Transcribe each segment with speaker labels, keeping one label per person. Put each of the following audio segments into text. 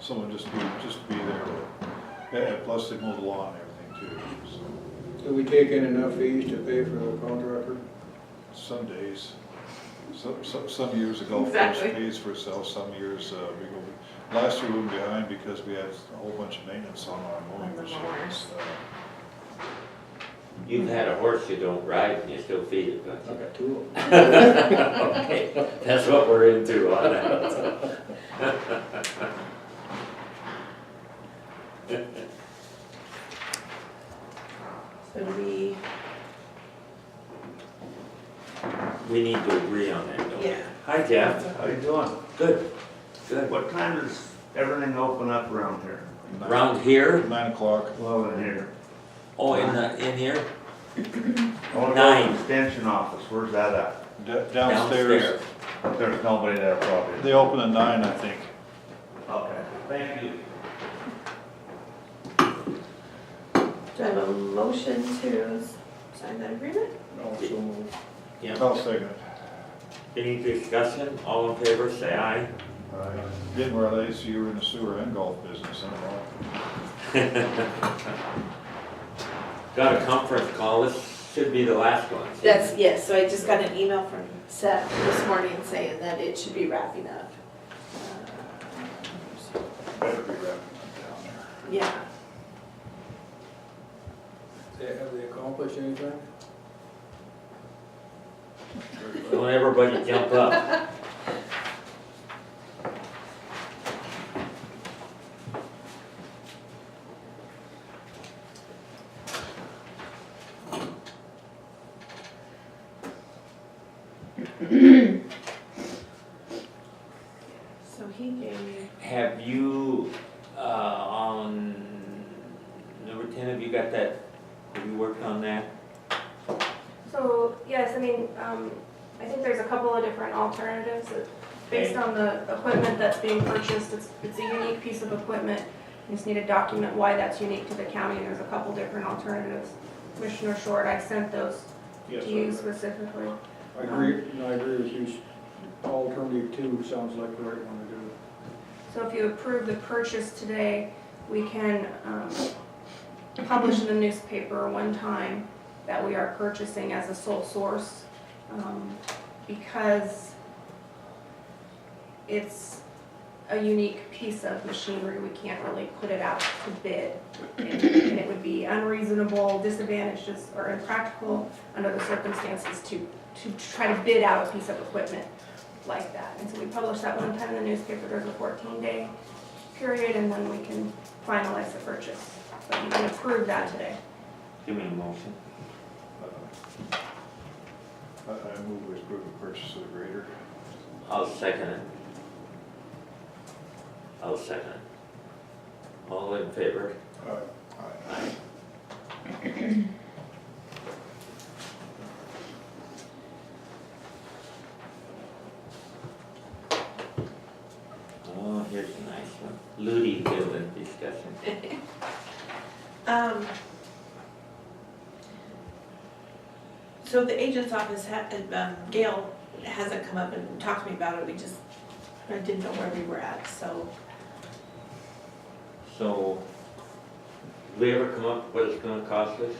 Speaker 1: someone just be, just be there. Yeah, and plus they mow the lawn and everything too, so
Speaker 2: Do we take in enough fees to pay for the contractor?
Speaker 1: some days, some, some, some years the golf course
Speaker 3: Exactly.
Speaker 1: pays for itself, some years, uh, we go, last year we were behind because we had a whole bunch of maintenance on our mowing
Speaker 3: On the
Speaker 1: machines.
Speaker 4: You've had a horse you don't ride and you still feed it, don't you?
Speaker 2: got two of them.
Speaker 4: Okay, that's what we're into on that.
Speaker 3: So do we,
Speaker 4: We need to agree on that, don't we?
Speaker 3: Yeah.
Speaker 4: Hi, Jeff.
Speaker 5: How you doing?
Speaker 4: Good. Good.
Speaker 5: What time does everything open up around here?
Speaker 1: Uh, Nine-
Speaker 4: Around here?
Speaker 1: Nine o'clock,
Speaker 5: Well, in here.
Speaker 4: Oh, in the, in here?
Speaker 5: I wanna go to
Speaker 4: Nine.
Speaker 5: the extension office, where's that at?
Speaker 1: Da- downstairs,
Speaker 5: But there's nobody there probably.
Speaker 1: they open at nine, I think.
Speaker 5: Okay, thank you.
Speaker 3: do I have a motion to sign that agreement?
Speaker 1: Oh,
Speaker 2: Also moved.
Speaker 4: Yeah.
Speaker 1: I'll second it.
Speaker 4: Any discussion? All in favor, say aye.
Speaker 1: Didn't realize you were in the sewer and golf business, I don't know.
Speaker 4: Got a conference call. This should be the last one.
Speaker 3: That's, yes, so I just got an email from Seth this morning saying that it should be wrapping up. Uh,
Speaker 1: Better be wrapping it down there.
Speaker 3: Yeah,
Speaker 2: They- Have they accomplished anything?
Speaker 4: Don't everybody jump up.
Speaker 3: so he gave me,
Speaker 4: Have you, uh, on number ten, have you got that? Have you worked on that?
Speaker 6: So, yes, I mean, um, I think there's a couple of different alternatives that- based on the equipment that's being purchased. It's, it's a unique piece of equipment. You just need to document why that's unique to the county, and there's a couple different alternatives. Commissioner Short, I sent those to you specifically.
Speaker 2: I agree, and I agree with you. Alternative two sounds like the right one to do.
Speaker 6: So if you approve the purchase today, we can um, publish in the newspaper one time that we are purchasing as a sole source um, because it's a unique piece of machinery. We can't really put it out to bid. And and it would be unreasonable, disadvantageous, or impractical under the circumstances to, to try to bid out a piece of equipment like that. And so we publish that one time in the newspaper, there's a fourteen day period, and then we can finalize the purchase. But you can approve that today.
Speaker 4: Give me a motion.
Speaker 1: I, I move we approve the purchase of the grader.
Speaker 4: I'll second it. I'll second it. All in favor?
Speaker 1: Aye.
Speaker 4: Oh, here's a nice one. Ludi Building discussion.
Speaker 3: um. So the agent's office had, um, Gail hasn't come up and talked to me about it, we just, I didn't know where we were at, so.
Speaker 4: So, did we ever come up with what it's gonna cost us?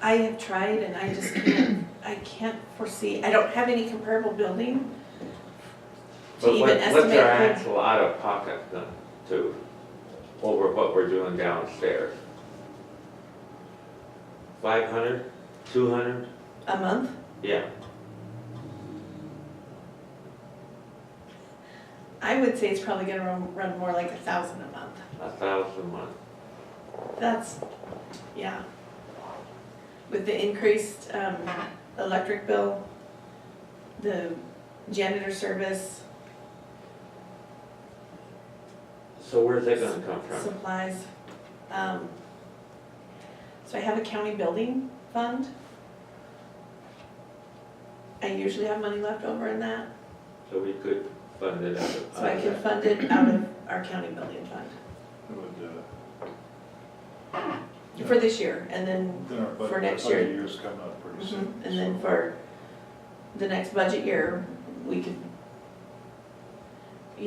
Speaker 3: I have tried and I just can't, I can't foresee, I don't have any comparable building to
Speaker 4: But
Speaker 3: even
Speaker 4: what-
Speaker 3: estimate.
Speaker 4: What's our
Speaker 3: when-
Speaker 4: actual out of pocket then to, over what we're doing downstairs? Five hundred, two hundred,
Speaker 3: A month?
Speaker 4: yeah,
Speaker 3: I would say it's probably gonna run, run more like a thousand a month.
Speaker 4: a thousand a month.
Speaker 3: That's, yeah. With the increased, um, electric bill, the janitor service,
Speaker 4: So where's that gonna come from?
Speaker 3: supplies, um. So I have a county building fund. I usually have money left over in that.
Speaker 4: So we could fund it out of.
Speaker 3: So I can fund it out of our county building fund
Speaker 1: It would, uh,
Speaker 3: for this year, and then,
Speaker 1: then our
Speaker 3: For
Speaker 1: budget, our
Speaker 3: next
Speaker 1: budget Mm-hmm.
Speaker 3: year. Mm-hmm.
Speaker 1: year's coming up pretty soon.
Speaker 3: and then
Speaker 1: so-
Speaker 3: for the next budget year, we could